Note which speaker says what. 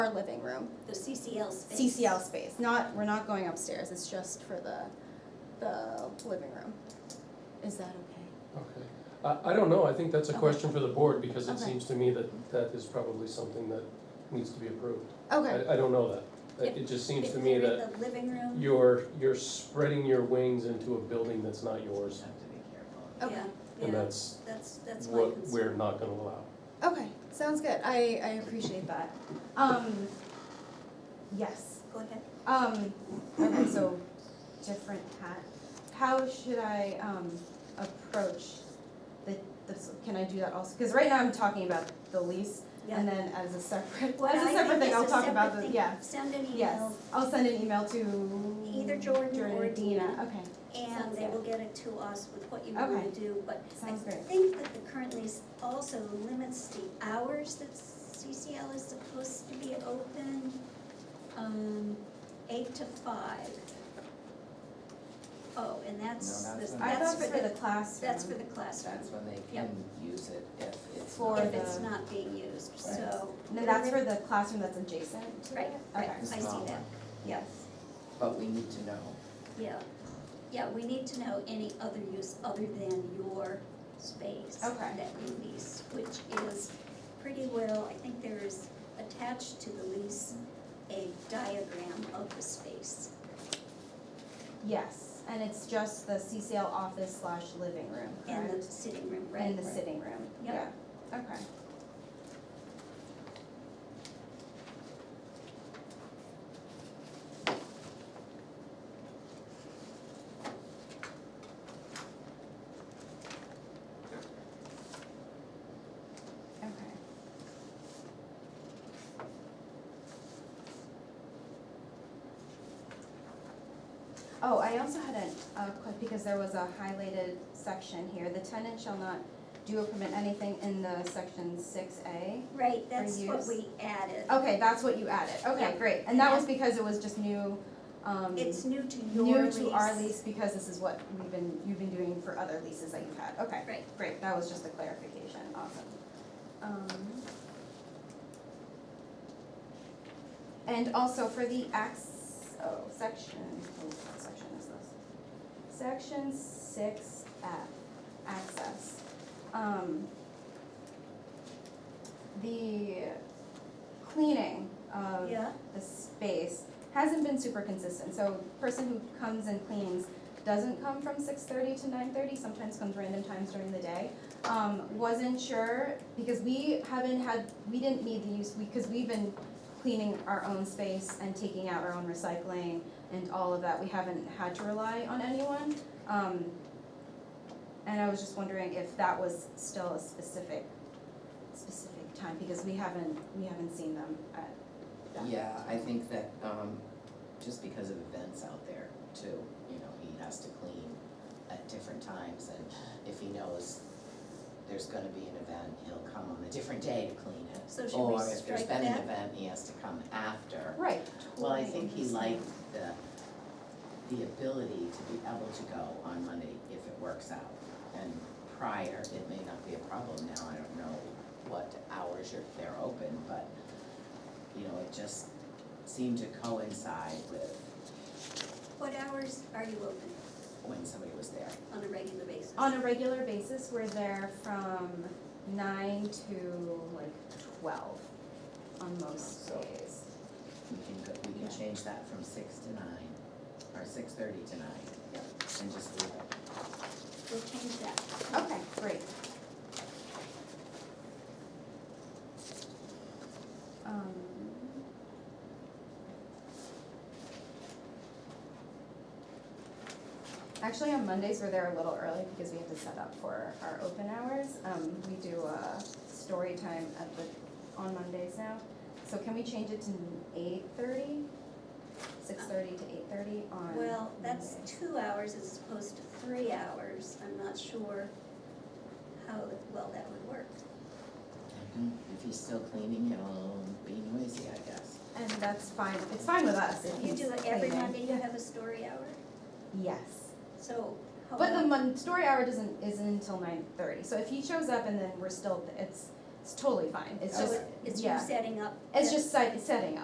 Speaker 1: our living room,
Speaker 2: The CCL space.
Speaker 1: CCL space, not, we're not going upstairs, it's just for the, the living room. Is that okay?
Speaker 3: Okay, I, I don't know, I think that's a
Speaker 1: Okay.
Speaker 3: question for the board, because it
Speaker 1: Okay.
Speaker 3: seems to me that that is probably something that needs to be approved.
Speaker 1: Okay,
Speaker 3: I, I don't know that, It-
Speaker 2: If-
Speaker 3: it just seems
Speaker 2: If
Speaker 3: to me
Speaker 2: they're in
Speaker 3: that
Speaker 2: The living room,
Speaker 3: you're, you're spreading your wings into a building that's not yours,
Speaker 4: have to be careful.
Speaker 2: yeah,
Speaker 1: okay,
Speaker 3: and
Speaker 2: yeah,
Speaker 3: that's
Speaker 2: that's, that's my
Speaker 3: what we're
Speaker 2: concern.
Speaker 3: not gonna allow.
Speaker 1: okay, sounds good, I, I appreciate that. Um, yes,
Speaker 2: Go ahead.
Speaker 1: um, okay, so, different hat. How should I, um, approach the, this, can I do that also? Cause right now I'm talking about the lease, and
Speaker 2: Yeah.
Speaker 1: then as a separate,
Speaker 2: Well,
Speaker 1: as
Speaker 2: I
Speaker 1: a
Speaker 2: think
Speaker 1: separate thing,
Speaker 2: it's
Speaker 1: I'll
Speaker 2: a
Speaker 1: talk about
Speaker 2: separate
Speaker 1: the,
Speaker 2: thing.
Speaker 1: yeah.
Speaker 2: Send an
Speaker 1: Yes,
Speaker 2: email
Speaker 1: I'll send an email to.
Speaker 2: Either Jordan or Dina.
Speaker 1: Okay,
Speaker 2: and
Speaker 1: Sounds
Speaker 2: they
Speaker 1: good.
Speaker 2: will get it to us with what you want
Speaker 1: Okay.
Speaker 2: to do, but I
Speaker 1: Sounds great.
Speaker 2: think that the current lease also limits the hours that CCL is supposed to be open, um, eight to five. Oh, and that's,
Speaker 4: No, that's
Speaker 2: the-
Speaker 4: not-
Speaker 1: I
Speaker 2: that's
Speaker 1: thought
Speaker 2: for
Speaker 1: for the
Speaker 2: the,
Speaker 1: classroom.
Speaker 2: that's for the classroom,
Speaker 4: That's when they
Speaker 2: Yep.
Speaker 4: can use it if it's.
Speaker 1: For
Speaker 4: not-
Speaker 2: if it's
Speaker 1: the-
Speaker 2: not being used,
Speaker 4: Right.
Speaker 2: so.
Speaker 1: No, that's for the classroom that's adjacent to it?
Speaker 2: Right, right,
Speaker 1: Okay.
Speaker 2: I see
Speaker 4: Small
Speaker 2: that,
Speaker 4: one.
Speaker 2: yeah,
Speaker 4: But we need to know.
Speaker 2: yeah. Yeah, we need to know any other use other than your space
Speaker 1: Okay.
Speaker 2: that you lease, which is pretty well, I think there is attached to the lease a diagram of the space.
Speaker 1: Yes, and it's just the CCL office slash living room,
Speaker 2: And the
Speaker 1: correct?
Speaker 2: sitting room,
Speaker 1: And
Speaker 2: right?
Speaker 1: the sitting room, yeah,
Speaker 2: Yep.
Speaker 1: okay. Okay. Oh, I also had a, a quick, because there was a highlighted section here, the tenant shall not do or permit anything in the section six A.
Speaker 2: Right, that's what
Speaker 1: use. Oh.
Speaker 2: we added.
Speaker 1: Okay, that's what you added, okay,
Speaker 2: Yeah.
Speaker 1: great, and that was because it was just new, um,
Speaker 2: It's new to your
Speaker 1: new
Speaker 2: lease.
Speaker 1: to our lease, because this is what we've been, you've been doing for other leases that you've had, okay.
Speaker 2: Right.
Speaker 1: Great, that was just a clarification, awesome. Um, And also for the acts, oh, section, oh, what section is this? Section six F, access. Um, The cleaning of
Speaker 2: Yeah,
Speaker 1: the space hasn't been super consistent, so person who comes and cleans doesn't come from six thirty to nine thirty, sometimes comes random times during the day. Um, wasn't sure, because we haven't had, we didn't need the use, we, cause we've been cleaning our own space and taking out our own recycling and all of that, we haven't had to rely on anyone. Um, and I was just wondering if that was still a specific, specific time, because we haven't, we haven't seen them at that
Speaker 4: Yeah, I think that, um, just because of events out there too, you know, he has to clean at different times and if he knows there's gonna be an event, he'll come on a different day to clean it.
Speaker 2: So should we
Speaker 4: Or if there's
Speaker 2: strike
Speaker 4: been an
Speaker 2: that?
Speaker 4: event, he has to come after.
Speaker 1: Right.
Speaker 4: Well, I think he liked the, the ability to be able to go on Monday if it works out. And prior, it may not be a problem now, I don't know what hours you're, they're open, but, you know, it just seemed to coincide with
Speaker 2: what hours are you open
Speaker 4: when somebody was there.
Speaker 2: on a regular basis?
Speaker 1: On a regular basis, we're there from nine to like twelve on most
Speaker 4: So-
Speaker 1: days.
Speaker 4: We can, go- we can change that from six to nine, or six thirty to nine, and just leave it.
Speaker 2: We'll change that.
Speaker 1: Okay, great. Um. Actually, on Mondays, we're there a little early because we have to set up for our open hours. Um, we do a story time at the, on Mondays now. So can we change it to eight thirty? Six thirty to eight thirty on Mondays?
Speaker 2: Well, that's two hours as opposed to three hours, I'm not sure how well that would work.
Speaker 4: And Mm-hmm. If he's still cleaning, he'll be noisy, I guess.
Speaker 1: And that's fine, it's fine with us. if
Speaker 2: You
Speaker 1: he's
Speaker 2: do it every
Speaker 1: cleaning.
Speaker 2: Monday, you have a story hour,
Speaker 1: Yes,
Speaker 2: so how
Speaker 1: but the
Speaker 2: long,
Speaker 1: mon- story hour doesn't, isn't until nine thirty, so if he shows up and then we're still, it's,
Speaker 2: It's totally fine, it's
Speaker 1: So
Speaker 2: just,
Speaker 1: it- it's
Speaker 2: yeah.
Speaker 1: you setting up.
Speaker 2: Oh, it's
Speaker 1: the-
Speaker 2: just si- setting up.